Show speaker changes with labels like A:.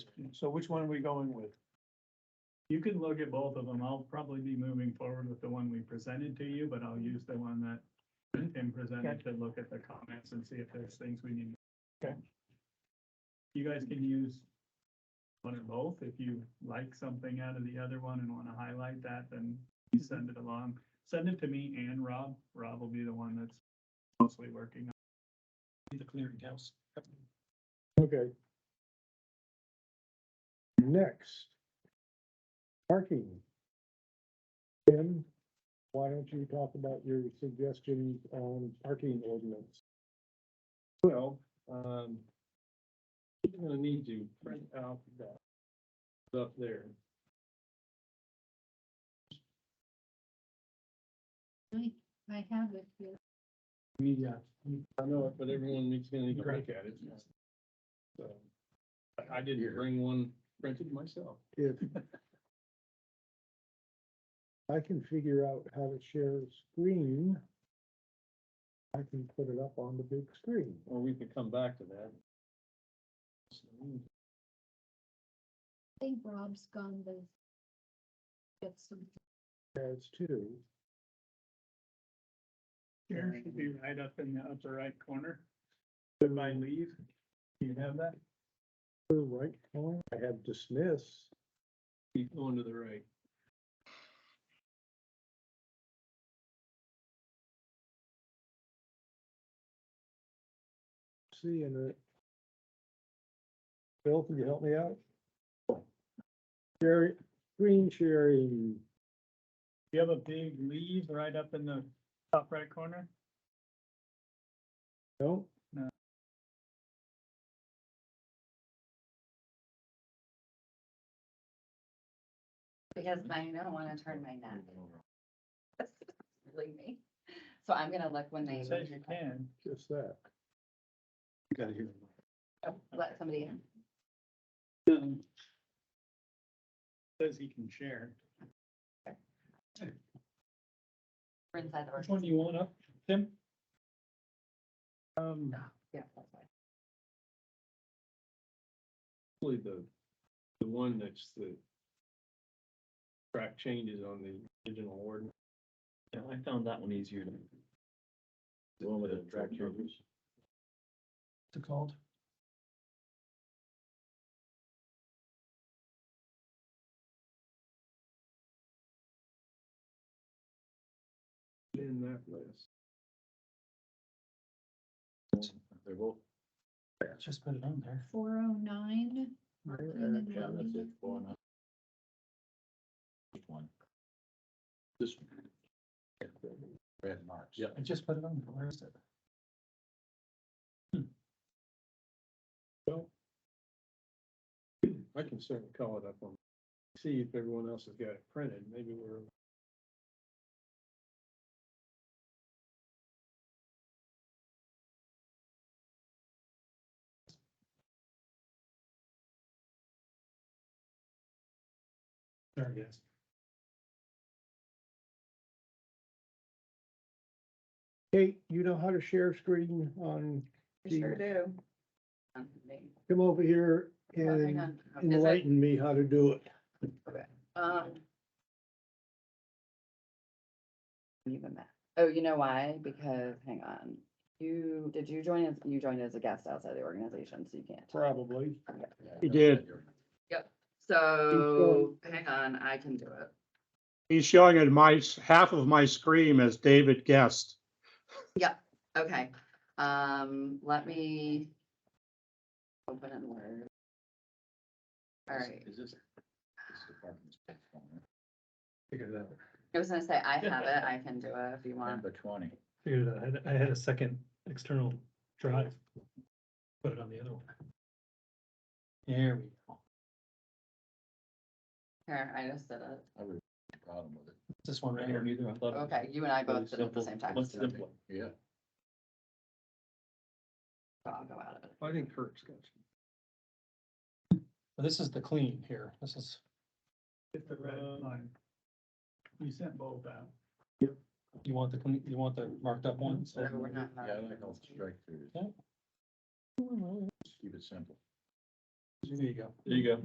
A: So which one are we going with?
B: You can look at both of them. I'll probably be moving forward with the one we presented to you, but I'll use the one that Tim presented to look at the comments and see if there's things we need.
A: Okay.
B: You guys can use one or both. If you like something out of the other one and want to highlight that, then you send it along. Send it to me and Rob. Rob will be the one that's mostly working. on
C: the clearinghouse.
A: Okay. Next. Parking. Tim, why don't you talk about your suggestions on parking ordinance?
C: Well, um, you're gonna need to print out that stuff there.
D: I have it here.
C: Yeah. I know it, but everyone needs to need to look at it. So, I, I didn't bring one printed myself.
A: If I can figure out how to share a screen, I can put it up on the big screen.
C: Or we could come back to that.
D: I think Rob's gone to get some.
A: As to,
B: Here should be right up in the upper right corner. If I leave, do you have that?
A: the right corner, I have dismiss.
C: Keep going to the right.
A: See, and it. Bill, can you help me out? Share, screen sharing,
B: You have a big leave right up in the top right corner?
A: no?
B: No.
E: Because I don't wanna turn my neck. Believe me. So I'm gonna look when they.
B: It says you can.
A: Just that.
C: Gotta hear.
E: Oh, Let somebody in.
B: Says he can share.
E: We're inside the.
B: Which
E: room.
B: one do you want up, Tim?
C: Um,
E: Yeah, that's fine.
C: probably the, the one that's the track changes on the original ordinance.
F: Yeah, I found that one easier to. The one with the track changes.
C: It's called? In that list.
F: They're both.
C: Just put it on there.
D: Four oh nine.
F: Yeah, that's it, four and a- Just one. This. one. Red marks. Yeah.
C: I just put it on, Hmm. where is it? Well. I can certainly call it up on, see if everyone else has got it printed, maybe we're. There it is.
A: Kate, you know how to share screen on,
E: I Sure
A: Mm.
E: do. Um, they-
A: come over here
E: oh, hang
A: and
E: on. Oh, is it-
A: enlighten me how to do it.
E: um, Even that. Oh, you know why? Because, hang on. You, did you join as, you joined as a guest outside the organization, so you can't.
A: Probably.
F: He
A: did.
E: So, hang on, I can do it.
G: He's showing it my, half of my screen as David guessed.
E: Okay, um, let me open in Word. All right,
F: Is this? this is the parking space one, right?
C: Figured it out.
E: I was gonna say, I have it, I can do it if you want.
F: Number twenty.
C: Figured it out. I had- I had a second external drive. Put it on the other one. There we go.
E: Here, I just did it.
F: I would have a problem with it.
C: This one right here.
F: either. I thought. it was
E: Okay, you and I both did it at the
F: simple,
E: same time.
F: much
E: so
F: simpler. Yeah.
E: I'll go out of it.
C: I think Kurt's got.
H: This is the clean here. This is,
B: Hit the red line. You sent both out.
H: you want the, clean- you want the marked up ones?
E: So we're not.
F: Yeah, I like all strike throughs.
H: Yeah.
F: Just keep it simple.
I: There you go.
B: There you go.